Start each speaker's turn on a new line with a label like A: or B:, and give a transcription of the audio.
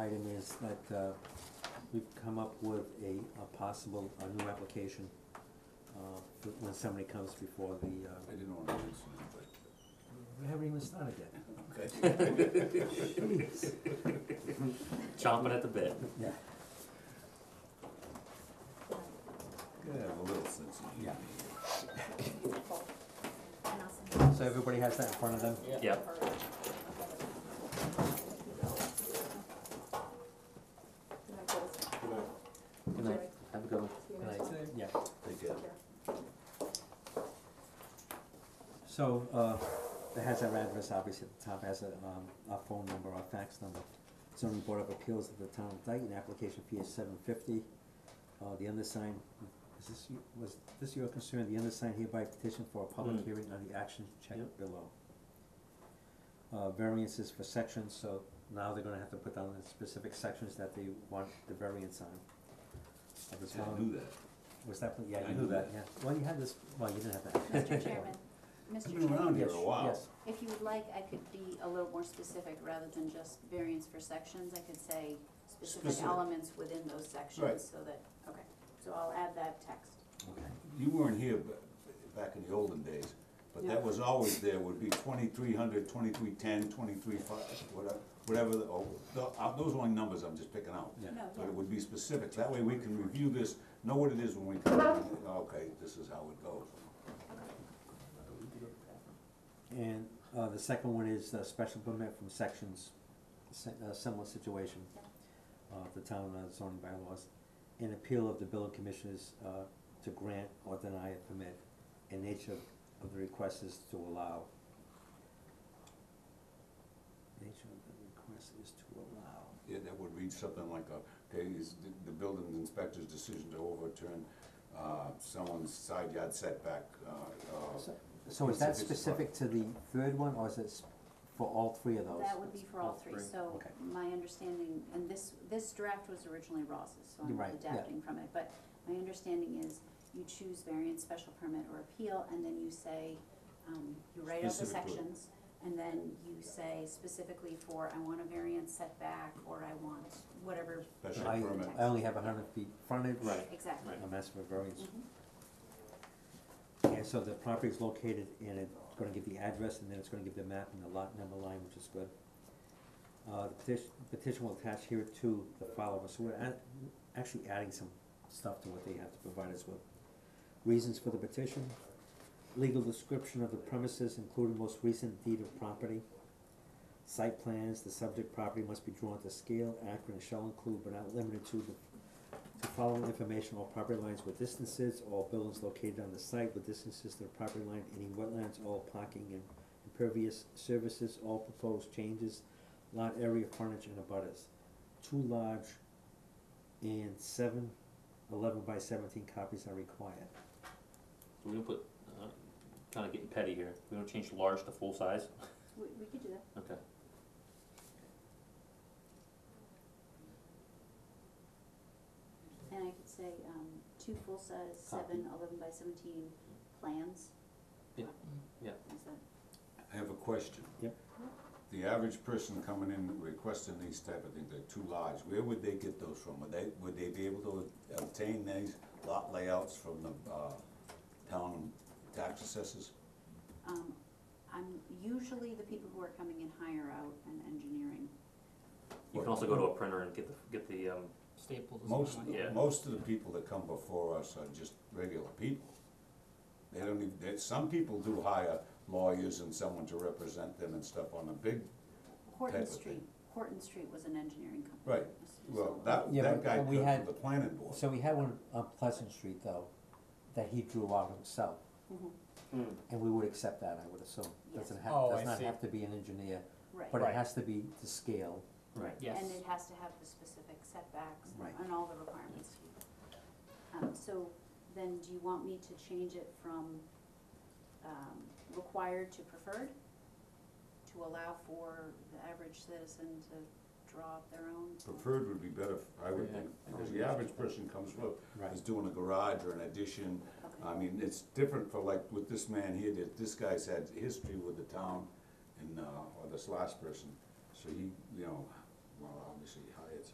A: item is that, uh, we've come up with a, a possible, a new application, uh, for when somebody comes before the, uh,
B: I didn't want to mention it,
A: we haven't even started yet.
B: but. Okay.
A: Please.
C: Chomping at the bit.
A: Yeah,
B: Gotta have a little sense of humor.
A: yeah.
D: And I'll send
A: So everybody has that in front of them?
C: Yep. Good night. Have a good one.
A: Right, Yeah.
B: Take care.
A: So, uh, it has our address, obviously, at the top, has a, um, our phone number, our fax number. Zoning Board of Appeals of the Town of Dayton, application fee is seven fifty. Uh, the undersigned, is this, you- was this your concern, the undersigned hereby petition for a public
C: Mm.
A: hearing on the action check
C: Yep.
A: below. Uh, variances for sections, so now they're gonna have to put down the specific sections that they want the variance on. Of the
B: See, I
A: town.
B: knew that.
A: was that, yeah,
B: I
A: you
B: knew
A: knew that, yeah,
B: that.
A: well, you had this, well, you didn't have that.
D: Mr. Chairman, Mr.
B: I've been around
D: Chairman,
B: here
A: Yes,
B: a while.
A: yes.
D: if you would like, I could be a little more specific rather than just variance for sections. I could say specific
B: Specific.
D: elements within those
B: Right.
D: sections so that, okay. So I'll add that text.
B: You weren't here ba- back in the olden days, but that was always there, would be twenty-three hundred, twenty-three ten, twenty-three five, whatever, whatever, the- oh, the- uh, those are only numbers I'm just picking out.
A: Yeah.
D: No,
B: But it
D: yeah.
B: would be specific, that way we can review this, know what it is when we come, in. okay, this is how it goes.
A: And, uh, the second one is a special permit from sections, se- uh, similar situation, uh, the town uh, zoning bylaws. An appeal of the building commissioners, uh, to grant or deny a permit, and nature of the request is to allow. Nature of the request is to allow.
B: Yeah, that would read something like, uh, okay, is the, the building inspector's decision to overturn, uh, someone's side yard setback, uh, uh,
A: So- So is that
B: It's- it's-
A: specific to the third one, or is it s- for all three of those?
D: That would be for all three, so
A: Okay.
D: my understanding, and this, this draft was originally Ross's, so I'm
A: Right, yeah.
D: adapting from it, but my understanding is you choose variance, special permit, or appeal, and then you say, um, you write out the
B: Specific to it.
D: sections, and then you say specifically for, I want a variance setback, or I want whatever,
B: special
A: I,
B: permit.
A: I only have a hundred feet frontage.
C: Right.
D: exactly.
A: I'm asking for variance.
D: Mhm.
A: And so the property is located and it's gonna give the address and then it's gonna give the map and the lot number line, which is good. Uh, the petition, petition will attach here to the following, so we're add, actually adding some stuff to what they have to provide us with. Reasons for the petition, legal description of the premises, including most recent deed of property. Site plans, the subject property must be drawn to scale, accurate, and shall include but not limited to the the following information, all property lines with distances, all buildings located on the site with distances to the property line, any wetlands, all parking and impervious services, all proposed changes, lot area frontage and abutters. Two large and seven, eleven by seventeen copies are required.
C: We're gonna put, uh, kinda getting petty here. We're gonna change large to full size.
D: We, we could do that.
C: Okay.
D: And I could say, um, two full-size, seven, eleven by seventeen plans.
C: Yeah, yeah.
D: Is that,
B: I have a question.
A: Yep.
B: The average person coming in requesting these type of things, they're too large, where would they get those from? Would they, would they be able to obtain these lot layouts from the, uh, town tax assessors?
D: um, I'm, usually the people who are coming in hire out an engineering.
C: You can also go to a printer and get the, get the, um,
E: Staples.
B: Most,
C: Yeah.
B: most of the people that come before us are just regular people. They don't even, they- some people do hire lawyers and someone to represent them and stuff on a big,
D: Horton
B: Type of
D: Street,
B: thing.
D: Horton Street was an engineering company.
B: right, well, that,
A: Yeah,
B: that
A: but-
B: guy
A: but we
B: comes
A: had-
B: from the planning board.
A: So we had one on Pleasant Street though, that he drew out himself,
D: Mhm,
A: and we would accept that, I would assume. Doesn't have,
E: Oh, I
A: does not
E: see.
A: have to be an engineer, but
D: Right,
A: it
E: Right.
A: has to be to scale.
C: right.
E: Yes.
D: and it has to have the specific setbacks
A: Right.
D: and all the requirements. Um, so then do you want me to change it from, um, required to preferred? To allow for the average citizen to draw up their own?
B: Preferred would be better, I would think, because the average person comes from,
A: Right.
B: is doing a garage or an addition.
D: Okay.
B: I mean, it's different for like with this man here, that this guy's had history with the town and, uh, or this last person. So he, you know,